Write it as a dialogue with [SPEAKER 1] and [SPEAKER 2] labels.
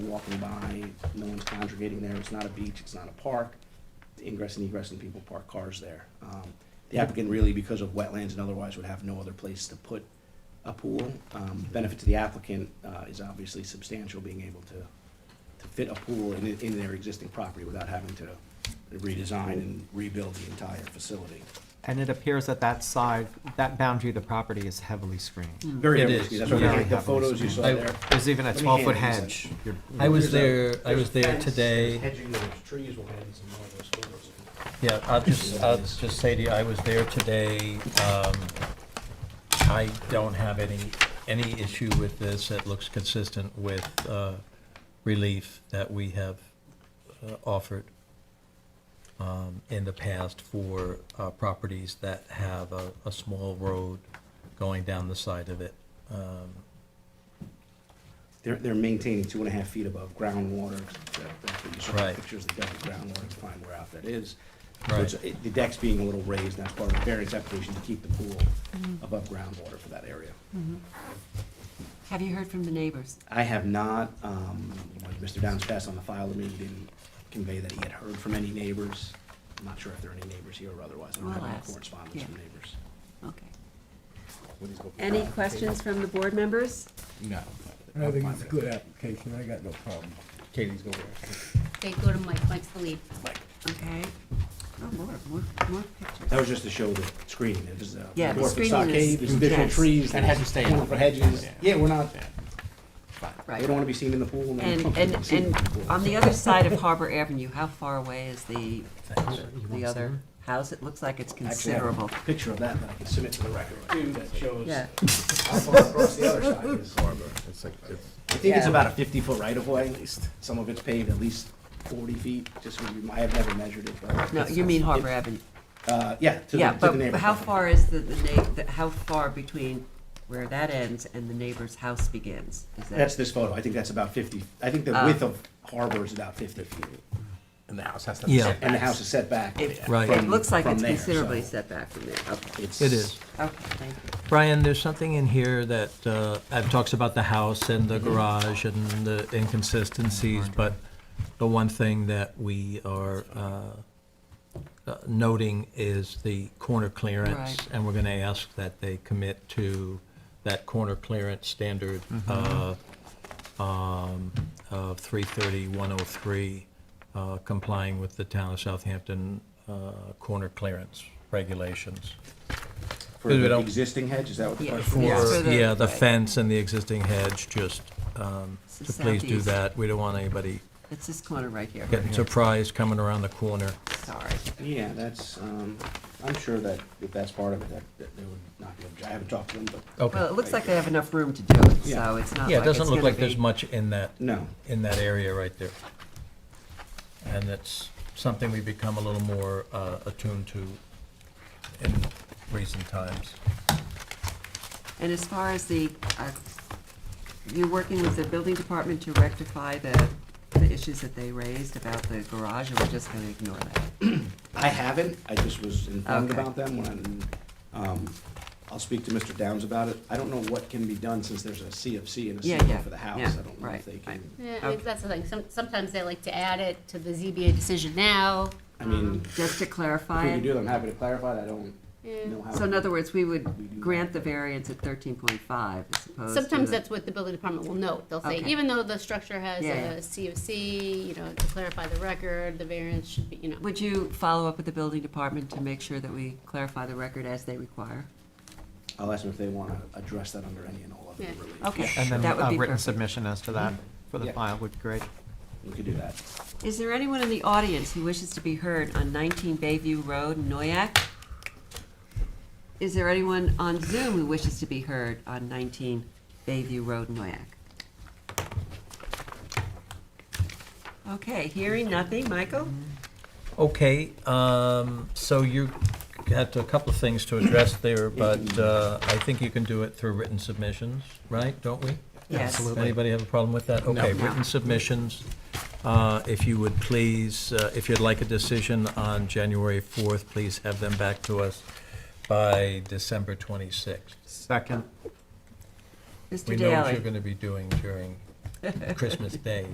[SPEAKER 1] walking by, no one's congregating there, it's not a beach, it's not a park. The Ingress and egress and people park cars there. Um, The applicant really, because of wetlands and otherwise, would have no other place to put a pool. Um, Benefit to the applicant uh, is obviously substantial, being able to, to fit a pool in, in their existing property without having to redesign and rebuild the entire facility.
[SPEAKER 2] And it appears that that side, that boundary of the property is heavily
[SPEAKER 3] Hmm.
[SPEAKER 2] screened.
[SPEAKER 1] Very
[SPEAKER 4] It
[SPEAKER 1] heavily,
[SPEAKER 4] is.
[SPEAKER 1] that's what
[SPEAKER 2] Very
[SPEAKER 1] the- the
[SPEAKER 2] heavily
[SPEAKER 1] photos you saw
[SPEAKER 4] I-
[SPEAKER 1] there.
[SPEAKER 2] There's even a
[SPEAKER 1] Let me
[SPEAKER 2] twelve-foot
[SPEAKER 1] hand you
[SPEAKER 2] hedge.
[SPEAKER 1] some.
[SPEAKER 2] You're-
[SPEAKER 4] I was
[SPEAKER 1] There's
[SPEAKER 4] there,
[SPEAKER 1] a-
[SPEAKER 4] I
[SPEAKER 1] there's
[SPEAKER 4] was
[SPEAKER 1] a
[SPEAKER 4] there
[SPEAKER 1] fence, there's
[SPEAKER 4] today.
[SPEAKER 1] Hedging, there's trees, will hide some of those photos.
[SPEAKER 4] Yeah, I'll just, I'll just say to you, I was there today. Um, I don't have any, any issue with this. It looks consistent with uh, relief that we have uh, offered um, in the past for uh, properties that have a, a small road going down the side of it. Um,
[SPEAKER 1] They're, they're maintaining two and a half feet above groundwater. That- That's what you saw, in
[SPEAKER 4] Right.
[SPEAKER 1] the pictures of the double groundwater, to find where out that is. So
[SPEAKER 4] Right.
[SPEAKER 1] it's- it- The deck's being a little raised, and that's part of the variance application to keep the pool
[SPEAKER 3] Mm-hmm.
[SPEAKER 1] above groundwater for that area.
[SPEAKER 3] Have you heard from the neighbors?
[SPEAKER 1] I have not, um, when Mr. Downs passed on the file to me, he didn't convey that he had heard from any neighbors. I'm not sure if there are any neighbors here or otherwise. I don't
[SPEAKER 3] We'll
[SPEAKER 1] have any
[SPEAKER 3] ask,
[SPEAKER 1] correspondence
[SPEAKER 3] yeah.
[SPEAKER 1] from neighbors.
[SPEAKER 3] Okay. Any questions from the board members?
[SPEAKER 5] No.
[SPEAKER 6] I think it's a good application, I got no problem.
[SPEAKER 5] Katie's going
[SPEAKER 7] Okay, go to Mike, Mike's the lead.
[SPEAKER 3] Okay. Oh, more, more, more pictures.
[SPEAKER 1] That was just to show the screening, there's a.
[SPEAKER 3] Yeah, the
[SPEAKER 1] dwarf
[SPEAKER 3] screening
[SPEAKER 1] stockade,
[SPEAKER 3] is-
[SPEAKER 1] There's additional
[SPEAKER 3] yes.
[SPEAKER 1] trees.
[SPEAKER 5] And had to stay
[SPEAKER 1] corner
[SPEAKER 5] out.
[SPEAKER 1] For hedges, yeah, we're not, we
[SPEAKER 3] Right.
[SPEAKER 1] don't wanna be seen in the pool. and then-
[SPEAKER 3] And, and,
[SPEAKER 1] seen in
[SPEAKER 3] and
[SPEAKER 1] the pool.
[SPEAKER 3] on the other side of Harbor Avenue, how far away is the, the other house? It looks like it's
[SPEAKER 1] Actually, I have a
[SPEAKER 3] considerable.
[SPEAKER 1] Picture of that that I can submit to the record too, that shows
[SPEAKER 3] Yeah.
[SPEAKER 1] how far across the other side is harbor. I think it's
[SPEAKER 3] Yeah.
[SPEAKER 1] about a fifty-foot right-of-way, at least, some of it's paved at least forty feet, just, so you- I have never measured it, but.
[SPEAKER 3] No,
[SPEAKER 1] it's-
[SPEAKER 3] you mean Harbor
[SPEAKER 1] it-
[SPEAKER 3] Avenue.
[SPEAKER 1] Uh, yeah, to the,
[SPEAKER 3] Yeah,
[SPEAKER 1] to the
[SPEAKER 3] but
[SPEAKER 1] neighbor.
[SPEAKER 3] how far is the, the na, the- how far between where that ends and the neighbor's house begins? Is that-
[SPEAKER 1] That's this photo, I think that's about fifty, I think the
[SPEAKER 3] Ah.
[SPEAKER 1] width of harbor is about fifty feet.
[SPEAKER 5] And the house has to.
[SPEAKER 4] Yeah.
[SPEAKER 1] and the house is set back.
[SPEAKER 3] It,
[SPEAKER 4] Right.
[SPEAKER 3] it looks like
[SPEAKER 1] from
[SPEAKER 3] it's
[SPEAKER 1] there,
[SPEAKER 3] considerably
[SPEAKER 1] so
[SPEAKER 3] set back from there. Okay,
[SPEAKER 1] It's,
[SPEAKER 4] It is.
[SPEAKER 3] okay, thank you.
[SPEAKER 4] Brian, there's something in here that, uh, it talks about the house and the garage and the inconsistencies, but the one thing that we are, uh, uh, noting is the corner clearance.
[SPEAKER 3] Right.
[SPEAKER 4] And we're gonna ask that they commit to that corner clearance standard, uh, um, of three thirty, one oh three, uh, complying with the town of Southampton, uh, corner clearance regulations.
[SPEAKER 1] For
[SPEAKER 4] Because we
[SPEAKER 1] the
[SPEAKER 4] don't-
[SPEAKER 1] existing hedge, is that what the
[SPEAKER 3] Yeah.
[SPEAKER 1] question
[SPEAKER 3] Yes,
[SPEAKER 4] For,
[SPEAKER 3] for the-
[SPEAKER 4] yeah, the
[SPEAKER 3] right.
[SPEAKER 4] fence and the existing hedge, just, um,
[SPEAKER 3] It's the
[SPEAKER 4] to please do
[SPEAKER 3] southeast.
[SPEAKER 4] that. We don't want anybody
[SPEAKER 3] It's this corner right here.
[SPEAKER 4] getting surprised coming around the corner.
[SPEAKER 3] Sorry.
[SPEAKER 1] Yeah, that's, um, I'm sure that if that's part of it, that, that they would not be, obje- I haven't talked to them, but,
[SPEAKER 4] Okay.
[SPEAKER 3] Well, it looks like they have enough room to do it,
[SPEAKER 1] Yeah.
[SPEAKER 3] so it's not like it's gonna be.
[SPEAKER 4] Yeah, it doesn't look Uh, like there's much in that,
[SPEAKER 1] no.
[SPEAKER 4] in that area right there. And that's something we've become a little more uh, attuned to in recent times.
[SPEAKER 3] And as far as the, uh, you're working with the building department to rectify the, the issues that they raised about the garage, or we're just gonna ignore that?
[SPEAKER 1] I haven't, I just was informed
[SPEAKER 3] Okay.
[SPEAKER 1] about them when, um, I'll speak to Mr. Downs about it. I don't know what can be done since there's a CFC and a
[SPEAKER 3] Yeah,
[SPEAKER 1] CFO
[SPEAKER 3] yeah,
[SPEAKER 1] for the house.
[SPEAKER 3] yeah,
[SPEAKER 1] I don't know if
[SPEAKER 3] right,
[SPEAKER 1] they
[SPEAKER 3] right.
[SPEAKER 1] can,
[SPEAKER 7] Yeah, I mean, that's the thing, some, sometimes they like to add it to the ZBA decision now. Um,
[SPEAKER 1] I mean,
[SPEAKER 3] Just to
[SPEAKER 1] if
[SPEAKER 3] clarify
[SPEAKER 1] we can do
[SPEAKER 3] it?
[SPEAKER 1] that, I'm happy to clarify that. I don't know how.
[SPEAKER 3] So in other words, we
[SPEAKER 1] We do
[SPEAKER 3] would grant the variance at thirteen point five as opposed to.
[SPEAKER 7] Sometimes that's what the building department will note, they'll say,
[SPEAKER 3] Okay.
[SPEAKER 7] even though the structure has
[SPEAKER 3] Yeah, yeah.
[SPEAKER 7] a COC, you know, to clarify the record, the variance should be, you know.
[SPEAKER 3] Would you follow up with the building department to make sure that we clarify the record as they require?
[SPEAKER 1] I'll ask them if they wanna address that under any and all of the
[SPEAKER 7] Yeah.
[SPEAKER 1] relief.
[SPEAKER 3] Okay,
[SPEAKER 2] And then
[SPEAKER 3] that would
[SPEAKER 2] a
[SPEAKER 3] be
[SPEAKER 2] written
[SPEAKER 3] perfect.
[SPEAKER 2] submission as to that for the
[SPEAKER 1] Yeah.
[SPEAKER 2] file would be great.
[SPEAKER 1] We could do that.
[SPEAKER 3] Is there anyone in the audience who wishes to be heard on 19 Bayview Road, Noyak? Is there anyone on Zoom who wishes to be heard on 19 Bayview Road, Noyak? Okay, hearing nothing, Michael?
[SPEAKER 4] Okay, um, so you got a couple of things to address there, but uh, I think you can do it through written submissions, right? Don't we?
[SPEAKER 3] Yes.
[SPEAKER 2] Absolutely.
[SPEAKER 4] Anybody have a problem with that? Okay,
[SPEAKER 3] No.
[SPEAKER 4] written submissions, uh, if you would please, uh, if you'd like a decision on January 4th, please have them back to us by December 26th.
[SPEAKER 2] Second.
[SPEAKER 3] Mr.
[SPEAKER 4] We
[SPEAKER 3] Daly?
[SPEAKER 4] know what you're going to be doing during Christmas Day,